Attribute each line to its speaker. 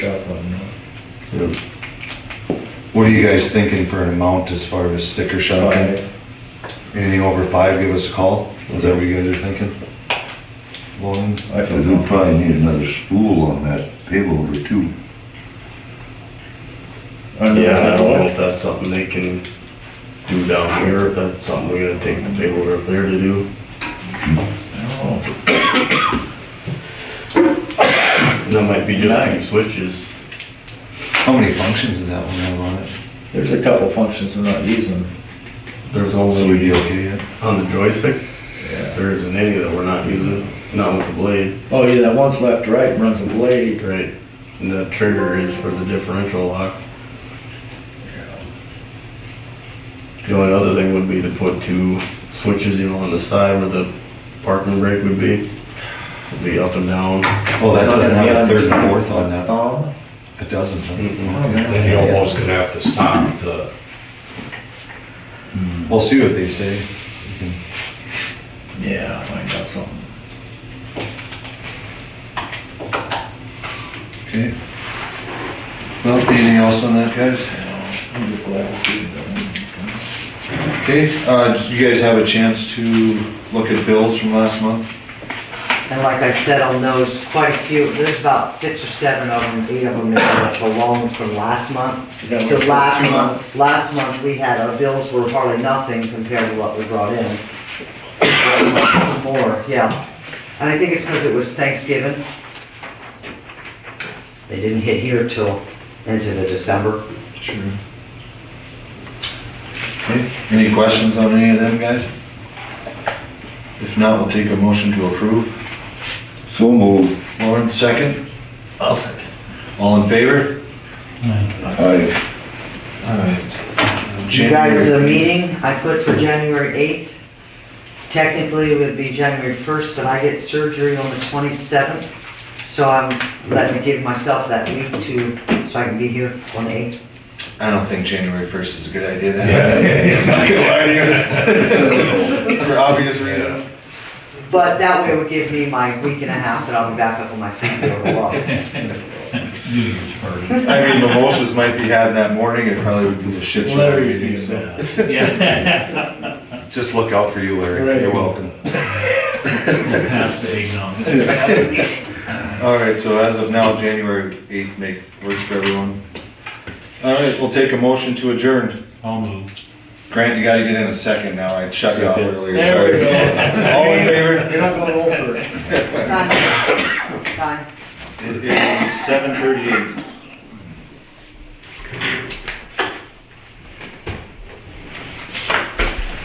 Speaker 1: shop on that.
Speaker 2: Yep. What are you guys thinking for an amount as far as sticker shopping? Anything over five, give us a call, is that what you guys are thinking? Lauren?
Speaker 1: I
Speaker 3: Because
Speaker 1: feel
Speaker 3: we'll probably need another spool on that payloader over too.
Speaker 4: Yeah, and I don't know if that's something they can do down here, if that's something we're gonna take the payloader up there to do.
Speaker 1: I
Speaker 4: And That might be just two switches.
Speaker 2: How many functions does that one have on it?
Speaker 1: don't know. There's a couple functions we're not using.
Speaker 4: There's
Speaker 2: So we'd be
Speaker 4: only,
Speaker 2: okay yet?
Speaker 4: on the joystick,
Speaker 1: Yeah.
Speaker 4: there isn't any that we're not using, not with the blade.
Speaker 1: Oh, yeah, that one's left to right runs a blade.
Speaker 4: Right. And the trigger is for the differential lock. The only other thing would be to put two switches, you know, on the side where the parking brake would be. It'd Be up and down.
Speaker 2: Oh, that doesn't have a third and fourth on that,
Speaker 1: Thumb.
Speaker 2: it doesn't, huh?
Speaker 4: Mm-mm.
Speaker 5: Then you're almost gonna have to stop the,
Speaker 2: We'll see what they say.
Speaker 1: Yeah, find out something.
Speaker 2: Okay. Well, anything else on that, guys?
Speaker 1: I'm just glad to see that.
Speaker 2: Okay, uh, did you guys have a chance to look at bills from last month?
Speaker 6: And like I said on those, quite a few, there's about six or seven of them, eight of them that belong from last month.
Speaker 1: Is that
Speaker 6: So
Speaker 1: what it
Speaker 6: last
Speaker 1: says?
Speaker 6: month, last month we had, our bills were hardly nothing compared to what we brought in. It's More, yeah. And I think it's because it was Thanksgiving. They didn't hit here till into the December.
Speaker 2: Sure. Okay, any questions on any of them, guys? If not, we'll take a motion to approve.
Speaker 3: So moved.
Speaker 2: Lauren, second?
Speaker 4: I'll second.
Speaker 2: All in favor?
Speaker 3: I,
Speaker 6: You guys, the meeting I put for January 8th, technically it would be January 1st, but I get surgery on the 27th. So I'm letting me give myself that week to, so I can be here on the 8th.
Speaker 2: I don't think January first is a good idea.
Speaker 5: Yeah.
Speaker 2: Not gonna lie to you. For obvious reasons.
Speaker 6: But that way it would give me my week and a half that I'll be back up on my feet for a walk.
Speaker 2: I mean, mimosas might be had that morning, it probably would be a shit show.
Speaker 1: Larry,
Speaker 2: meeting,
Speaker 1: you
Speaker 2: so
Speaker 1: bet.
Speaker 7: Yeah.
Speaker 2: Just look out for you, Larry,
Speaker 1: Right.
Speaker 2: you're welcome.
Speaker 7: Pass the eggnog.
Speaker 2: All right, so as of now, January 8th makes, works for everyone. All right, we'll take a motion to adjourn.
Speaker 7: I'll move.
Speaker 2: Grant, you gotta get in a second now, I shut you off
Speaker 4: Second.
Speaker 2: earlier, sorry. All in favor?
Speaker 1: You're not going over it.
Speaker 6: Time, time.
Speaker 2: It is 7:38.